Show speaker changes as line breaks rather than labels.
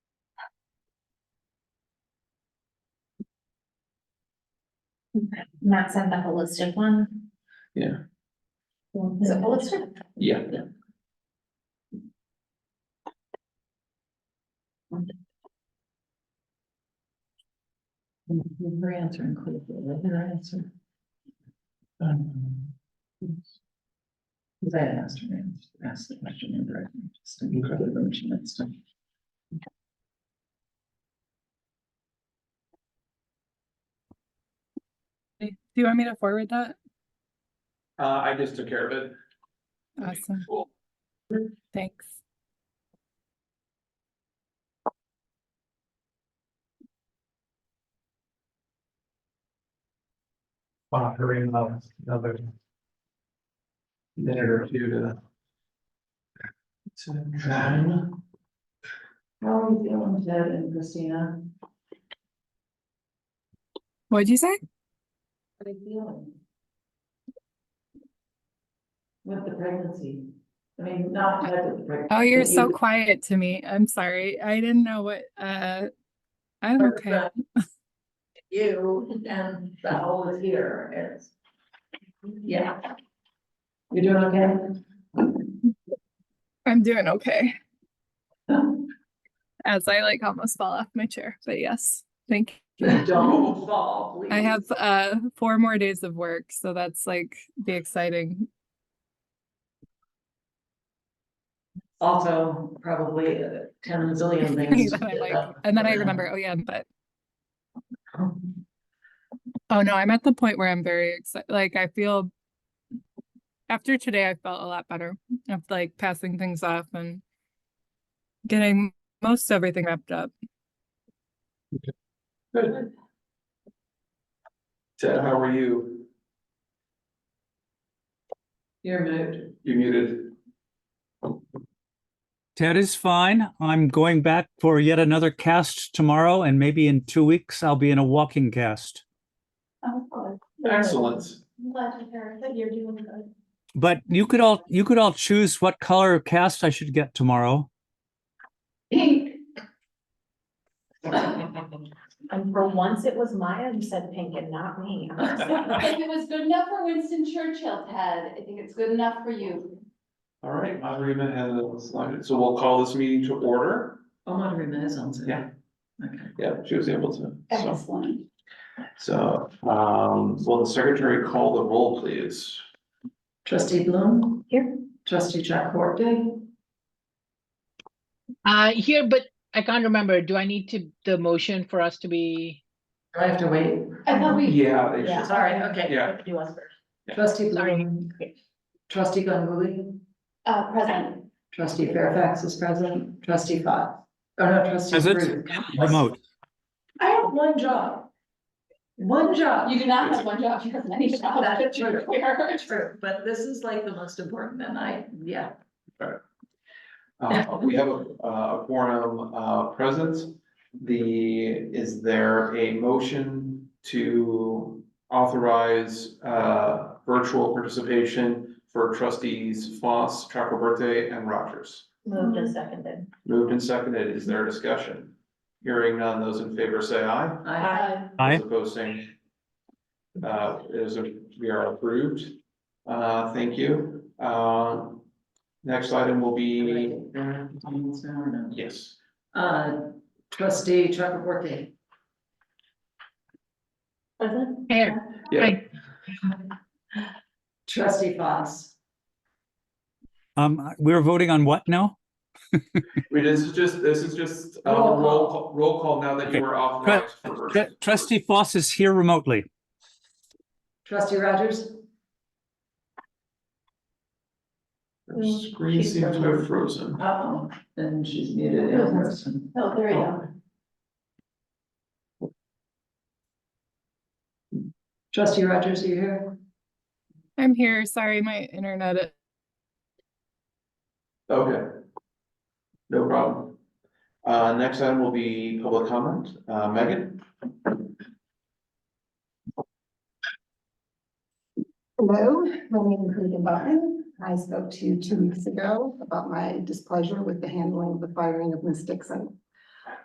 Not send the holistic one.
Yeah.
Is it holistic?
Yeah.
Your answer included, your answer. Because I had asked her, I asked the question in direction, just to be clear when she next time.
Okay, Do you want me to forward that?
Uh, I just took care of it.
Awesome,
Cool.
thanks.
offering of another. Minute or two to. to try.
How are you feeling, Ted and Christina?
What'd you say?
How are you feeling? With the pregnancy, I mean, not Ted with the pregnancy.
Oh, you're
but
so
you-
quiet to me. I'm sorry. I didn't know what, uh, I'm
Or uh,
okay.
the- You and the whole is here, it's. Yeah. You're doing okay?
I'm doing okay, as I like almost fall off my chair, but yes, thank you.
Don't fall, please.
I have, uh, four more days of work, so that's like the exciting,
Also, probably uh, ten zillion
thing
things.
that I
to get
like.
done.
And then I remember, oh yeah, but, oh no, I'm at the point where I'm very excited. Like I feel after today, I felt a lot better of like passing things off and getting most everything wrapped up.
Good. Ted, how are you?
You're moved.
You muted.
Ted is fine. I'm going back for yet another cast tomorrow, and maybe in two weeks I'll be in a walking cast.
Excellent.
Oh, Glad to hear that you're doing good.
But you could all you could all choose what color cast I should get tomorrow.
Pink. Oh,
And for once, it was Maya who said pink and not me.
If it was good enough for Winston Churchill, Ted, I think it's good enough for you.
All right, my agreement has a slide, so we'll call this meeting to order.
Oh, my goodness, on Zoom.
Yeah.
Okay.
Yeah, she was able to, so,
Excellent.
so, um, will the secretary call the roll, please?
Trustee Bloom?
Here.
Trustee Jack Corday?
Uh, here, but I can't remember. Do I need to, the motion for us to be?
Do I have to wait?
I thought we-
Yeah, they
Yeah.
should,
Sorry, okay.
yeah,
Do us first.
Trustee Bloom? Trustee Ganguly?
Uh, present.
Trustee Fairfax is present. Trustee Fox? Oh, no, trustee
Present.
Ruth.
Remote.
I have one job. One job.
You do not have one job, you have many jobs.
That's
but you're
true.
aware.
True, but this is like the most important and I, yeah.
uh, we have a, a quorum, uh, present. The, is there a motion to authorize, uh, virtual participation for trustees Foss, Chakraborty, and Rogers?
Moved and seconded.
Moved and seconded, is there discussion? Hearing none, those in favor say aye.
I,
Aye.
Those opposed, same. Uh, it is, a- we are approved. Uh, thank you. Uh, next item will be,
Almost an hour now.
yes,
Uh, trustee Chakraborty.
Present?
Here,
yeah,
Trustee Fox.
Um, we were voting on what now?
we, this is just, this is just, uh,
Roll call.
roll, call- roll call now that you are authorized. for virtual.
Tr- Trustee Foss is here remotely.
Trustee Rogers.
Her Screen seems to have frozen.
Uh-oh. And she's muted in person.
Oh, there we go.
Trustee Rogers, are you here?
I'm here. Sorry, my internet.
Okay. No problem. Uh, next item will be public comment. Uh, Megan?
Hello, my name is Megan Button. I spoke to you two weeks ago about my displeasure with the handling of the firing of Ms. Dixon.